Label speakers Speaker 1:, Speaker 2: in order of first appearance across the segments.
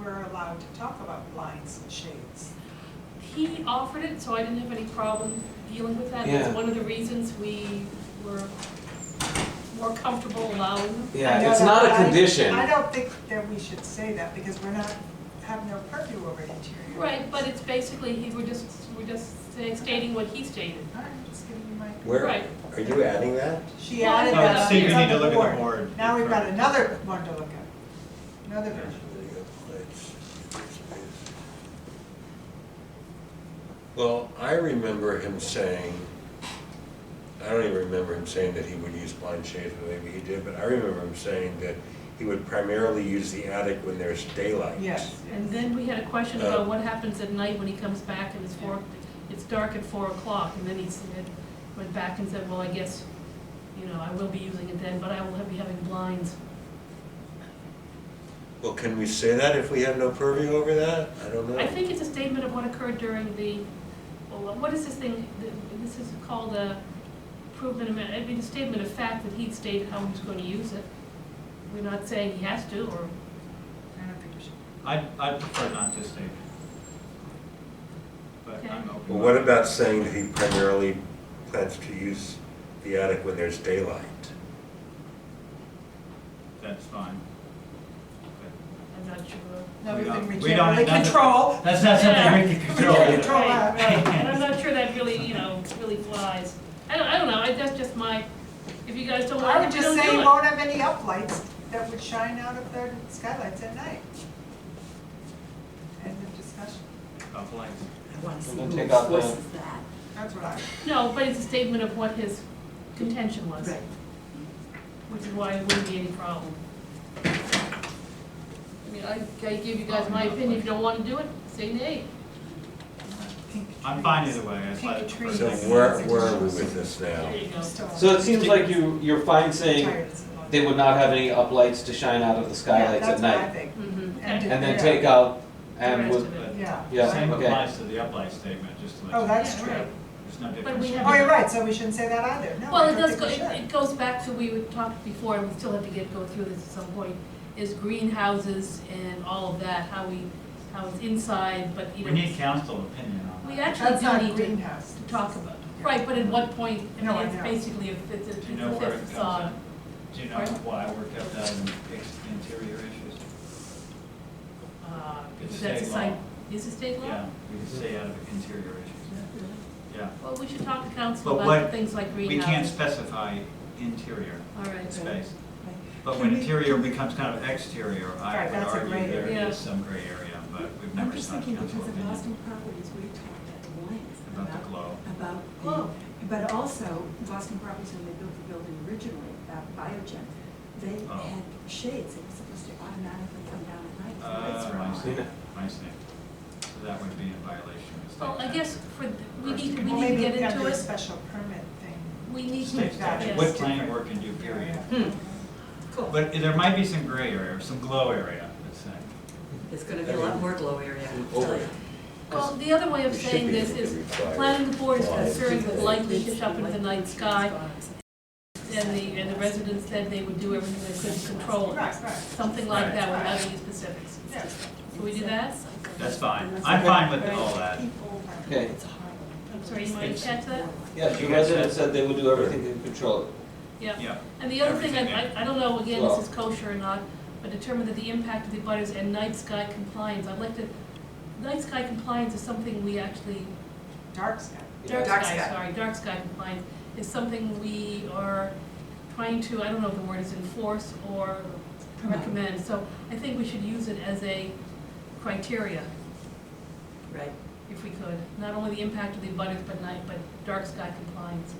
Speaker 1: allowed to talk about blinds and shades.
Speaker 2: He offered it, so I didn't have any problem dealing with that. That's
Speaker 3: Yeah.
Speaker 2: one of the reasons we were more comfortable allowing.
Speaker 1: I know
Speaker 3: Yeah, it's
Speaker 1: that,
Speaker 3: not
Speaker 1: but
Speaker 3: a
Speaker 1: I-
Speaker 3: condition.
Speaker 1: I don't think that we should say that because we're not, have no purview over interior.
Speaker 2: Right, but it's basically, he, we're just, we're just say- stating what he stated.
Speaker 1: All right, just giving you my.
Speaker 4: Where,
Speaker 2: Right.
Speaker 4: are you adding that?
Speaker 1: She
Speaker 2: Well,
Speaker 1: added
Speaker 2: I-
Speaker 1: that.
Speaker 2: Uh,
Speaker 5: So so you
Speaker 1: it's
Speaker 5: need
Speaker 1: on
Speaker 5: to look at the board.
Speaker 1: Now we've got another one to look at, another version.
Speaker 4: Well, I remember him saying, I don't even remember him saying that he would use blind shades, but maybe he did, but I remember him saying that he would primarily use the attic when there's daylight.
Speaker 1: Yes.
Speaker 2: And then we had a question about what happens at night when he comes back and it's four, it's dark at four o'clock. And then he said, went back and said, well, I guess, you know, I will be using it then, but I will be having blinds.
Speaker 4: Well, can we say that if we have no purview over that? I don't know.
Speaker 2: I think it's a statement of what occurred during the, well, what is this thing, this is called a improvement of, I mean, a statement of fact that he'd stated how he's going to use it. We're not saying he has to, or,
Speaker 1: I don't think we should.
Speaker 5: I, I prefer not to state. But I'm open.
Speaker 4: Well, what about saying that he primarily plans to use the attic when there's daylight?
Speaker 5: That's fine.
Speaker 2: I'm not sure.
Speaker 1: No, we
Speaker 5: don't-
Speaker 1: think we
Speaker 5: we don't-
Speaker 1: can't really
Speaker 5: that's-
Speaker 1: control.
Speaker 5: That's not something we can
Speaker 1: We
Speaker 5: control.
Speaker 1: can't control that,
Speaker 2: Right,
Speaker 1: right.
Speaker 2: And I'm not sure that really, you know, really flies. I don't, I don't know, I, that's just my, if you guys don't
Speaker 1: I
Speaker 2: like
Speaker 1: would
Speaker 2: it, you
Speaker 1: just
Speaker 2: don't
Speaker 1: say
Speaker 2: do
Speaker 1: you
Speaker 2: it.
Speaker 1: won't have any uplights that would shine out of their skylights at night. End of discussion.
Speaker 5: Of like,
Speaker 6: I want to see
Speaker 3: We'll
Speaker 6: who
Speaker 3: take out the-
Speaker 6: enforces that.
Speaker 1: That's what I.
Speaker 2: No, but it's a statement of what his contention was,
Speaker 1: Right.
Speaker 2: which is why it wouldn't be any problem. I mean, I, I give you guys my opinion, if you don't wanna do it, say nay.
Speaker 1: Pink
Speaker 5: I'm fine
Speaker 1: trees.
Speaker 5: either way, I slightly
Speaker 1: Pink
Speaker 5: prefer.
Speaker 4: So
Speaker 1: trees.
Speaker 5: that.
Speaker 4: where, where are we with this now?
Speaker 2: There you go.
Speaker 1: Still on.
Speaker 3: So it seems like you, you're fine saying
Speaker 1: Tired, it's a lot.
Speaker 3: they would not have any uplights to shine out of the skylights
Speaker 1: Yeah,
Speaker 3: at
Speaker 1: that's what I
Speaker 3: night.
Speaker 1: think.
Speaker 6: Mm-hmm.
Speaker 2: Mhm.
Speaker 1: And
Speaker 3: And then
Speaker 1: Yeah.
Speaker 3: take out,
Speaker 2: The
Speaker 3: and
Speaker 2: rest
Speaker 3: would,
Speaker 2: of it.
Speaker 1: Yeah.
Speaker 3: Yeah.
Speaker 1: right.
Speaker 5: Same
Speaker 3: okay.
Speaker 5: applies to the uplight statement, just to let you know.
Speaker 1: Oh, that's
Speaker 2: Yeah,
Speaker 1: true.
Speaker 2: right.
Speaker 5: There's no difference.
Speaker 2: we have-
Speaker 1: Oh, you're right, so we shouldn't say that either. No,
Speaker 2: Well,
Speaker 1: I
Speaker 2: it
Speaker 1: don't
Speaker 2: does,
Speaker 1: think
Speaker 2: go
Speaker 1: we
Speaker 2: it
Speaker 1: should.
Speaker 2: it goes back to, we were talked before, and we still have to get, go through this at some point, is greenhouses and all of that, how we, how it's inside, but you
Speaker 5: We
Speaker 2: know.
Speaker 5: need council opinion on that.
Speaker 2: We actually
Speaker 1: That's not
Speaker 2: do need to-
Speaker 1: greenhouse.
Speaker 2: to talk about, right, but at what point, I
Speaker 1: No, I
Speaker 2: mean, it's
Speaker 1: know.
Speaker 2: basically, if it's, a- it's
Speaker 5: Do you know
Speaker 2: a
Speaker 5: where it
Speaker 2: fifth
Speaker 5: comes
Speaker 2: facade.
Speaker 5: in? Do you know
Speaker 2: Pardon?
Speaker 5: why we're kept out of ex- interior issues?
Speaker 2: Uh,
Speaker 5: It's
Speaker 2: is that
Speaker 5: state
Speaker 2: a site-
Speaker 5: law.
Speaker 2: Is it state law?
Speaker 5: Yeah, we can stay out of interior issues, yeah.
Speaker 2: Well, we should talk to council
Speaker 5: But
Speaker 2: about
Speaker 5: what-
Speaker 2: things like
Speaker 5: We can't
Speaker 2: greenhouses.
Speaker 5: specify interior
Speaker 2: All right.
Speaker 5: space,
Speaker 1: Right.
Speaker 5: but
Speaker 1: Can
Speaker 5: when
Speaker 1: we-
Speaker 5: interior becomes kind of exterior, I
Speaker 1: Right,
Speaker 5: would
Speaker 1: that's a
Speaker 5: argue
Speaker 1: gray
Speaker 5: there
Speaker 2: area.
Speaker 5: is some gray area, but we've
Speaker 6: I'm
Speaker 5: never
Speaker 6: just
Speaker 5: sought
Speaker 6: thinking
Speaker 5: council
Speaker 6: because of
Speaker 5: opinion
Speaker 6: Boston Properties, we talked at length
Speaker 5: about the
Speaker 6: about,
Speaker 5: glow.
Speaker 6: about the-
Speaker 2: Glow.
Speaker 6: But also, Boston Properties, when they built the building originally, uh, Biogen, they
Speaker 5: Oh.
Speaker 6: had shades that were supposed to automatically come down at night if the lights were
Speaker 5: Uh, I
Speaker 6: on.
Speaker 5: see, I see. So that would be in violation of state.
Speaker 2: Well, I
Speaker 5: statute.
Speaker 2: guess for, th- we need, to- we
Speaker 1: Well,
Speaker 2: need to
Speaker 1: maybe
Speaker 2: get
Speaker 1: we have
Speaker 2: into
Speaker 1: a
Speaker 2: it,
Speaker 1: special permit thing.
Speaker 2: we need to.
Speaker 5: State statute,
Speaker 2: yes.
Speaker 5: what planning board can do, period.
Speaker 2: Hmm.
Speaker 5: But there might be some gray area, or some glow area, let's say.
Speaker 6: It's gonna be a lot more glow area, I'll tell you.
Speaker 2: Well, the other way of
Speaker 4: We should
Speaker 2: saying
Speaker 4: be
Speaker 2: this
Speaker 4: able to
Speaker 2: is,
Speaker 4: require
Speaker 2: planning board is
Speaker 4: lights.
Speaker 2: concerned with light leaks up into the night sky, and the, and the residents said they would do everything they could to control it.
Speaker 1: Right, right.
Speaker 2: Something like that
Speaker 1: Right.
Speaker 2: without any specifics.
Speaker 1: Yeah.
Speaker 2: Can
Speaker 6: uh,
Speaker 2: we do that?
Speaker 5: That's fine, I'm fine with all that.
Speaker 1: People are-
Speaker 3: okay.
Speaker 2: I'm sorry, you might catch that?
Speaker 3: Yeah, the resident said they would do everything to control it.
Speaker 2: Yeah.
Speaker 5: Yeah,
Speaker 2: And the other thing, I, I- I don't know, again,
Speaker 3: Well-
Speaker 2: this is kosher or not, but determine that the impact of the butters and night sky compliance, I'd like to, night sky compliance is something we actually,
Speaker 1: Dark sky.
Speaker 2: dark
Speaker 6: Dark
Speaker 2: sky,
Speaker 6: sky.
Speaker 2: sorry, dark sky compliance is something we are trying to, I don't know if the word is enforce or
Speaker 6: Promote.
Speaker 2: recommend, so I think we should use it as a criteria,
Speaker 6: Right.
Speaker 2: if we could, not only the impact of the butters, but night, but dark sky compliance.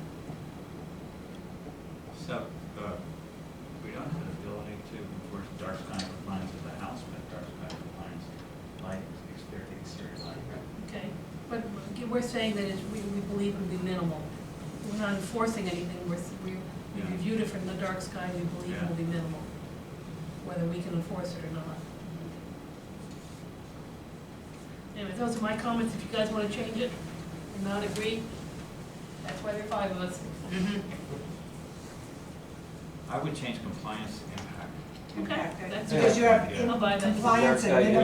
Speaker 5: so, uh, we don't have the ability to enforce dark sky compliance of the house, but dark sky compliance, light, exterior, exterior light.
Speaker 2: Okay, but we're saying that it's, we, we believe it would be minimal. We're not enforcing anything, we're, s- we we
Speaker 5: Yeah.
Speaker 2: reviewed it from the dark sky, we believe it will be minimal, whether we can enforce it or not. Anyway, those are my comments, if you guys wanna change it, or not agree, that's why there are five of us.
Speaker 5: I would change compliance to impact.
Speaker 2: Okay,
Speaker 1: Impact,
Speaker 2: that's
Speaker 1: Because you have
Speaker 5: Yeah.
Speaker 2: I'll buy that.
Speaker 1: compliance
Speaker 3: Dark sky,
Speaker 1: and
Speaker 3: yeah.
Speaker 1: minimum